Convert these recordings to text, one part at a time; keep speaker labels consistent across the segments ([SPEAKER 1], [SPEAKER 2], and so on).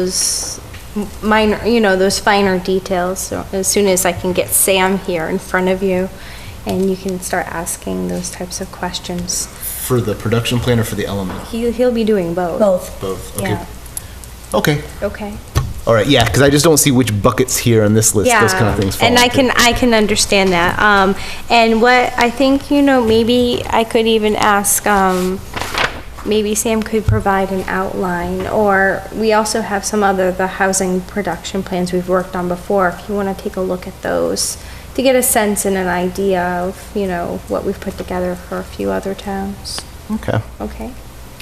[SPEAKER 1] those m- minor, you know, those finer details. So as soon as I can get Sam here in front of you, and you can start asking those types of questions.
[SPEAKER 2] For the production plan or for the element?
[SPEAKER 1] He, he'll be doing both.
[SPEAKER 3] Both.
[SPEAKER 2] Both, okay.
[SPEAKER 1] Yeah,
[SPEAKER 2] Okay,
[SPEAKER 1] okay.
[SPEAKER 2] all right, yeah, because I just don't see which buckets here on this list,
[SPEAKER 1] yeah.
[SPEAKER 2] those kind of things fall
[SPEAKER 1] And I
[SPEAKER 2] into.
[SPEAKER 1] can, I can understand that. Um, and what I think, you know, maybe I could even ask, um, maybe Sam could provide an outline, or we also have some other, the housing production plans we've worked on before, if you want to take a look at those, to get a sense and an idea of, you know, what we've put together for a few other towns.
[SPEAKER 2] Okay,
[SPEAKER 1] Okay?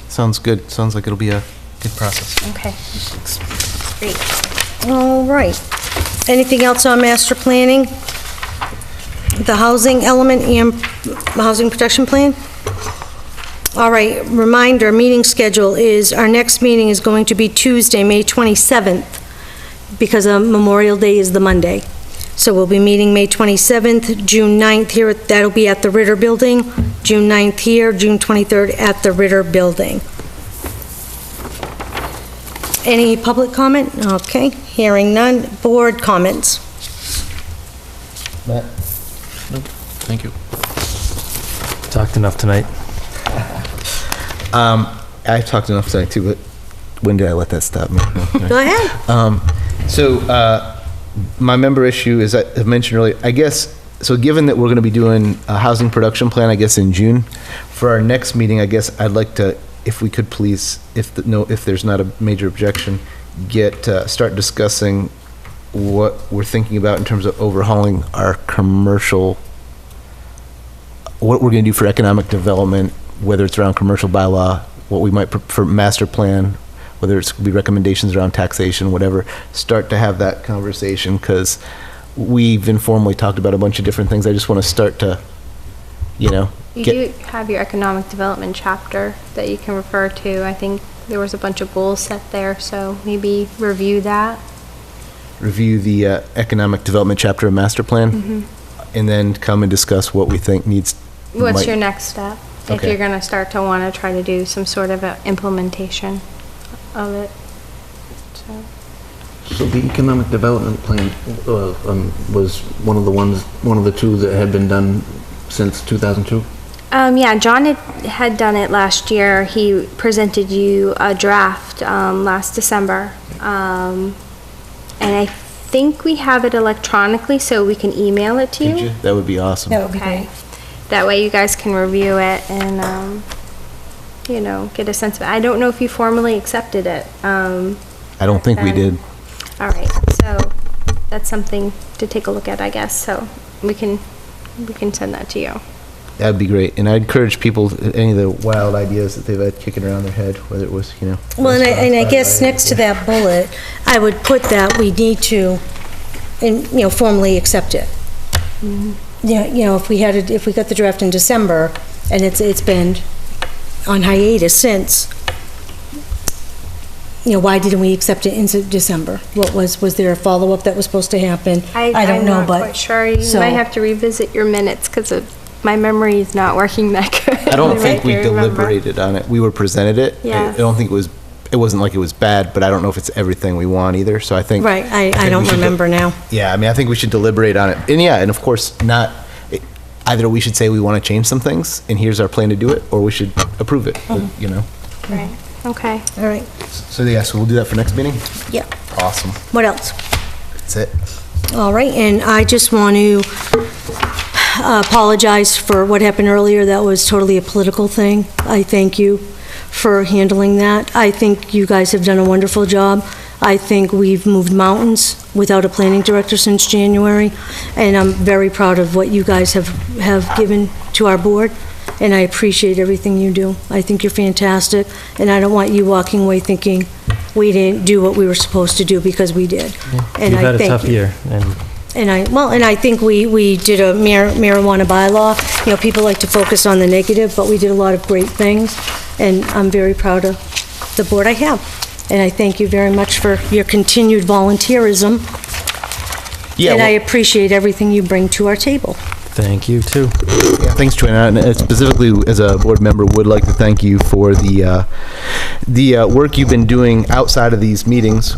[SPEAKER 2] sounds good, sounds like it'll be a good process.
[SPEAKER 1] Okay. Great.
[SPEAKER 3] All right. Anything else on master planning? The housing element and housing protection plan? All right, reminder, meeting schedule is, our next meeting is going to be Tuesday, May 27th, because uh, Memorial Day is the Monday. So we'll be meeting May 27th, June 9th here, at- that'll be at the Ritter Building, June 9th here, June 23rd at the Ritter Building. Any public comment? Okay, hearing none. Board comments?
[SPEAKER 2] Matt?
[SPEAKER 4] Thank you. Talked enough tonight.
[SPEAKER 2] Um, I've talked enough tonight too, but when did I let that stop me? No,
[SPEAKER 3] Go ahead.
[SPEAKER 2] Um, so, uh, my member issue is, I I mentioned earlier, I guess, so given that we're going to be doing a housing production plan, I guess, in June, for our next meeting, I guess I'd like to, if we could please, if, the- no, if there's not a major objection, get, uh, start discussing what we're thinking about in terms of overhauling our commercial, what we're going to do for economic development, whether it's around commercial bylaw, what we might, pr- for master plan, whether it's be recommendations around taxation, whatever, start to have that conversation, because we've informally talked about a bunch of different things. I just want to start to, you know,
[SPEAKER 1] You
[SPEAKER 2] Get-
[SPEAKER 1] do have your economic development chapter that you can refer to. I think there was a bunch of goals set there, so maybe review that.
[SPEAKER 2] review the uh, economic development chapter of master
[SPEAKER 3] Mm-hmm.
[SPEAKER 2] plan, and then come and discuss what we think needs.
[SPEAKER 1] What's
[SPEAKER 2] might-
[SPEAKER 1] your next step? If
[SPEAKER 2] Okay.
[SPEAKER 1] you're gonna start to wanna try to do some sort of a implementation of it. So,
[SPEAKER 5] So the economic development plan uh, um, was one of the ones, one of the two that had been done since 2002?
[SPEAKER 1] Um, yeah, John had, had done it last year. He presented you a draft, um, last December. Um, and I think we have it electronically, so we can email it to
[SPEAKER 2] Could you? That would be awesome.
[SPEAKER 3] That would be
[SPEAKER 1] Okay.
[SPEAKER 3] great.
[SPEAKER 1] That way you guys can review it and, um, you know, get a sense of it. I don't know if you formally accepted it. Um,
[SPEAKER 2] I don't think we
[SPEAKER 1] then-
[SPEAKER 2] did.
[SPEAKER 1] All right, so that's something to take a look at, I guess. So we can, we can send that to you.
[SPEAKER 2] That'd be great. And I encourage people, any of the wild ideas that they've had kicking around their head, whether it was, you know.
[SPEAKER 3] Well, and I, and I
[SPEAKER 2] restaurants,
[SPEAKER 3] guess
[SPEAKER 2] bad
[SPEAKER 3] next to that bullet, I would put that we need to, and, you know, formally accept it. Yeah, you know, if we had, it- if we got the draft in December, and it's, it's been on hiatus since, you know, why didn't we accept it in Se- December? What was, was there a follow-up that was supposed to happen? I don't know,
[SPEAKER 1] I'm not
[SPEAKER 3] but.
[SPEAKER 1] quite sure. You
[SPEAKER 3] so-
[SPEAKER 1] might have to revisit your minutes because my memory is not working that good.
[SPEAKER 2] I don't think we
[SPEAKER 1] Right, I remember.
[SPEAKER 2] deliberated on it. We were presented it. I- I
[SPEAKER 1] Yes.
[SPEAKER 2] don't think it was, it wasn't like it was bad, but I don't know if it's everything we want either, so I think.
[SPEAKER 3] Right, I,
[SPEAKER 2] think
[SPEAKER 3] I
[SPEAKER 2] we
[SPEAKER 3] don't
[SPEAKER 2] should de-
[SPEAKER 3] remember now.
[SPEAKER 2] Yeah, I mean, I think we should deliberate on it. And yeah, and of course, not, it- either we should say we want to change some things, and here's our plan to do it, or we should approve it,
[SPEAKER 3] Mm-hmm.
[SPEAKER 2] you know?
[SPEAKER 1] Right, okay.
[SPEAKER 3] All right,
[SPEAKER 2] So yeah, so we'll do that for next meeting?
[SPEAKER 3] yeah.
[SPEAKER 2] Awesome.
[SPEAKER 3] What else?
[SPEAKER 2] That's it.
[SPEAKER 3] All right, and I just want to uh, apologize for what happened earlier. That was totally a political thing. I thank you for handling that. I think you guys have done a wonderful job. I think we've moved mountains without a planning director since January, and I'm very proud of what you guys have, have given to our board, and I appreciate everything you do. I think you're fantastic, and I don't want you walking away thinking we didn't do what we were supposed to do, because we did.
[SPEAKER 4] You've
[SPEAKER 3] And I
[SPEAKER 4] had a
[SPEAKER 3] thank
[SPEAKER 4] tough
[SPEAKER 3] you.
[SPEAKER 4] year, and
[SPEAKER 3] And I, well, and I think we, we did a mar- marijuana bylaw. You know, people like to focus on the negative, but we did a lot of great things, and I'm very proud of the board I have. And I thank you very much for your continued volunteerism,
[SPEAKER 2] Yeah,
[SPEAKER 3] and I
[SPEAKER 2] well,
[SPEAKER 3] appreciate everything you bring to our table.
[SPEAKER 4] Thank you, too.
[SPEAKER 2] Yeah, thanks, Joanna. And uh, specifically, as a board member, would like to thank you for the, uh, the uh, work you've been doing outside of these meetings